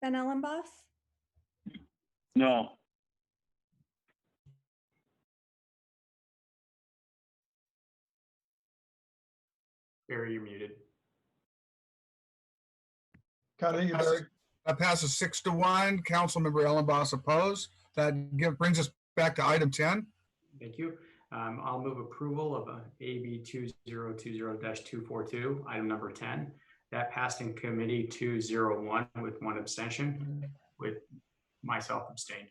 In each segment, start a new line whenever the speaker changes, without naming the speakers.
Van Ellenboss?
No.
Barry, you're muted.
Connie, you
Passes-
there?
That passes six to one. Councilmember Ellenboss opposed. That give, brings us back to item ten.
Thank you. Um, I'll move approval of uh, AB two zero two zero two four two, item number ten. That passed in committee two zero one with one abstention, with myself abstained.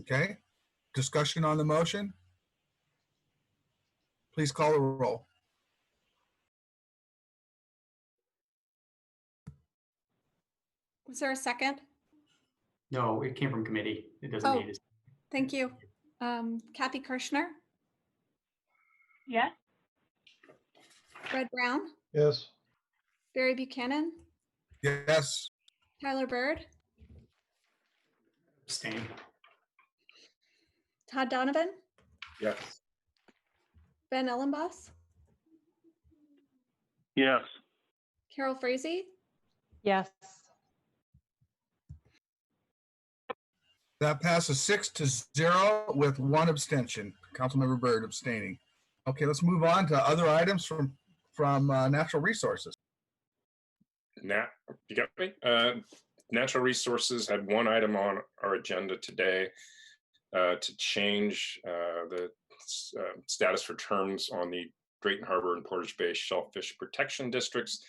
Okay. Discussion on the motion? Please call the roll.
Was there a second?
No, it came from committee. It doesn't
Oh.
need it.
Thank you. Um, Kathy Kirschner,
yes,
Red Brown,
Yes.
Barry Buchanan,
Yes.
Tyler Bird,
Abstain.
Todd Donovan,
Yes.
Ben Ellenboss,
Yes.
Carol Frazee,
yes,
That passes six to zero with one abstention. Councilmember Byrd abstaining. Okay, let's move on to other items from, from uh, natural resources.
Nat, you got me? Uh, Natural Resources had one item on our agenda today uh, to change uh, the s- uh, status for terms on the Drayton Harbor and Portage Bay Shellfish Protection Districts,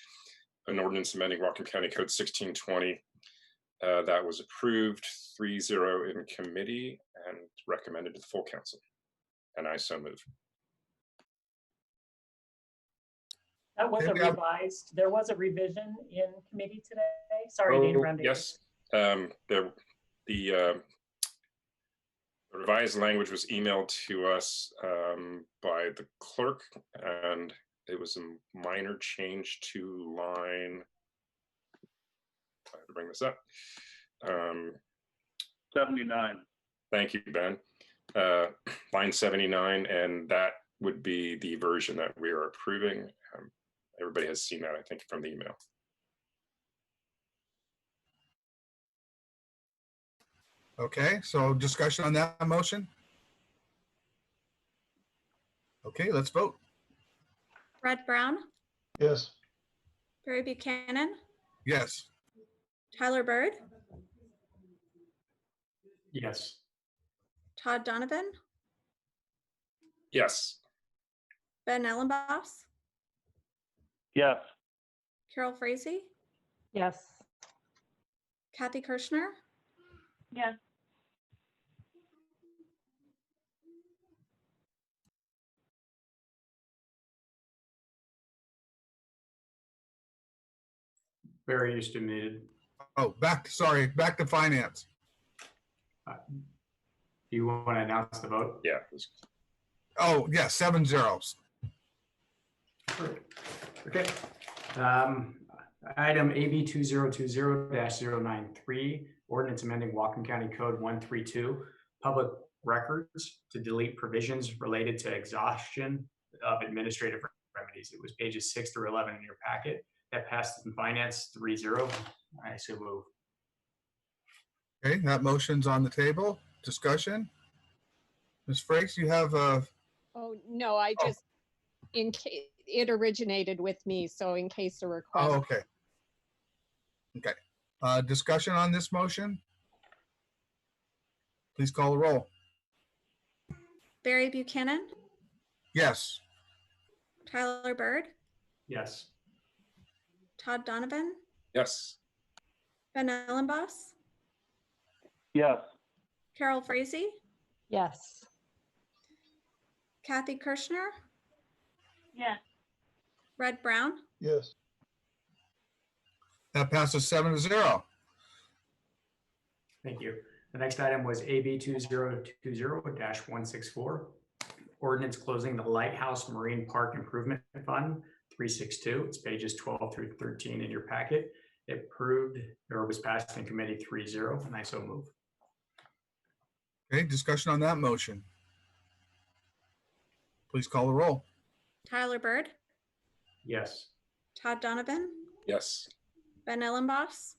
an ordinance amending Rockland County Code 1620. uh, That was approved 3-0 in committee and recommended to the full council. And I so move.
That was a
Maybe I'm-
revised, there was a revision in committee today. Sorry to
Oh,
interrupt. you.
yes. Um, the, the, uh, revised language was emailed to us, um, by the clerk and it was a minor change to line. I have to bring this up. Um,
Seventy-nine.
Thank you, Ben. Uh, Line 79, and that would be the version that we are approving. Um, Everybody has seen that, I think, from the email.
Okay, so discussion on that motion? Okay, let's vote.
Red Brown,
Yes.
Barry Buchanan,
Yes.
Tyler Bird,
Yes.
Todd Donovan,
Yes.
Ben Ellenboss,
Yes.
Carol Frazee,
yes.
Kathy Kirschner,
yes.
Barry, you're still muted.
Oh, back, sorry, back to finance.
Uh, Do you want to announce the vote?
Yeah. it was-
Oh, yeah, seven zeros.
Perfect. Okay. Um, Item AB 2020-093, ordinance amending Walken County Code 132, public records to delete provisions related to exhaustion of administrative remedies. It was pages six through 11 in your packet. That passed in finance 3-0. I so move.
Okay, that motion's on the table. Discussion? Ms. Frakes, you have uh, a,
Oh, no, I
Oh.
just, in case, it originated with me, so in case
oh,
a request,
okay. Okay, uh, discussion on this motion? Please call the roll.
Barry Buchanan,
Yes,
Tyler Bird,
Yes.
Todd Donovan,
Yes.
Ben Ellenboss,
Yes.
Carol Frazee,
Yes.
Kathy Kirschner,
Yes.
Red Brown,
Yes.
that passes seven to zero.
Thank you. The next item was AB two zero two zero one six four. Ordinance closing the Lighthouse Marine Park Improvement Fund three six two. It's pages twelve through thirteen in your packet. It proved or was passed in committee three zero, and I so move.
Okay, discussion on that motion? Please call the roll.
Tyler Bird,
Yes.
Todd Donovan,
Yes.
Ben Ellenboss,